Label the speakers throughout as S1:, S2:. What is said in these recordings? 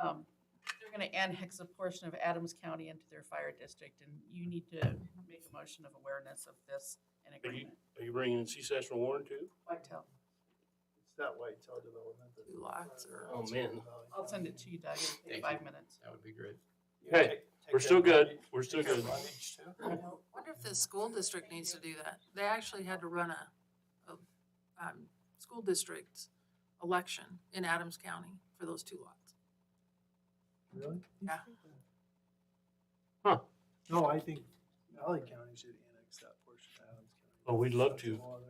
S1: um, they're gonna annex a portion of Adams County into their fire district, and you need to make a motion of awareness of this and
S2: Are you,
S1: agreement.
S2: are you bringing in C-section Warren too?
S1: Whitetail,
S3: It's that Whitetail Development. that-
S4: Two lots or-
S2: Oh, man.
S1: I'll send it to you, Doug, it'll take
S4: Thank
S1: five minutes.
S4: That would be great.
S3: You take-
S2: Hey,
S3: take
S2: We're
S3: that
S2: still good,
S3: Rutledge-
S2: we're still
S3: take that
S2: good.
S3: Rutledge too?
S4: Wonder if the school district needs to do that. They actually had to run a, a, um, school district election in Adams County for those two lots.
S3: Really?
S4: Yeah.
S2: Huh.
S3: No, I think Valley County should annex that portion of Adams County.
S2: Oh, we'd love to.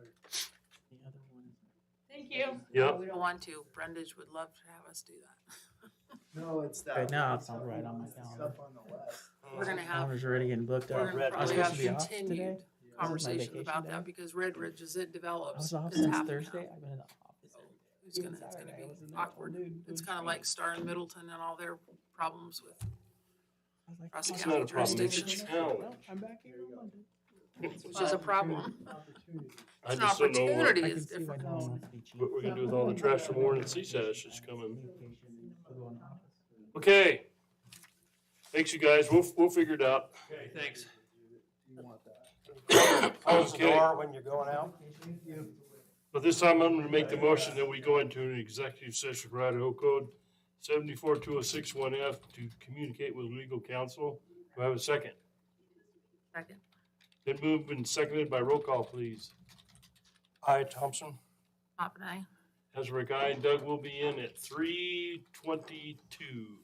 S1: Thank you.
S2: Yeah,
S4: We don't want to. Brendage would love to have us do that.
S3: No, it's that.
S5: Right now, it's
S3: up
S5: not right on my
S3: it's
S5: calendar.
S3: Up on the west.
S4: We're gonna have,
S5: Calendar's already getting booked
S4: we're
S5: up.
S4: gonna
S5: I was
S4: probably
S5: supposed
S4: have
S5: to be off today.
S4: continued
S5: my
S4: conversations
S5: vacation
S4: about
S5: day.
S4: that because Red Ridge, as it
S5: I was
S4: develops,
S5: off
S4: is
S5: since
S4: happening
S5: Thursday.
S4: now.
S5: I've been in the office. every day.
S4: It's gonna,
S5: Even
S4: it's gonna
S5: Saturday, I
S4: be
S5: was in there all
S4: awkward.
S5: noon
S4: It's
S5: doing
S4: kinda like
S5: training.
S4: Star and Middleton and all their problems with
S5: I was like,
S4: Ross
S5: "Well,
S2: It's
S4: County
S2: not a problem, it's a
S4: jurisdiction.
S5: well,
S2: challenge.
S5: I'm back here
S3: There you
S5: on
S3: go.
S5: Monday.
S4: Which is a problem.
S3: Opportunity.
S2: I
S4: It's an
S2: just don't know what-
S4: opportunity
S5: I
S4: is
S5: can see why
S4: different.
S5: no one wants to be chief.
S2: what we're gonna do with all the trash from Warren and CSAS that's coming.
S5: We'll go in the office.
S2: Okay. Thanks, you guys, we'll, we'll figure it out.
S6: Thanks.
S3: Do you want that?
S6: Close the
S2: Okay.
S6: door when you're going out.
S2: But this time I'm gonna make the motion that we go into an executive session for Idaho Code seventy-four two oh six one F to communicate with legal counsel. Do I have a second?
S4: Second.
S2: Then moved and seconded by roll call, please. Hi, Thompson.
S4: Pop and I.
S2: Hezrick, I and Doug will be in at three twenty-two.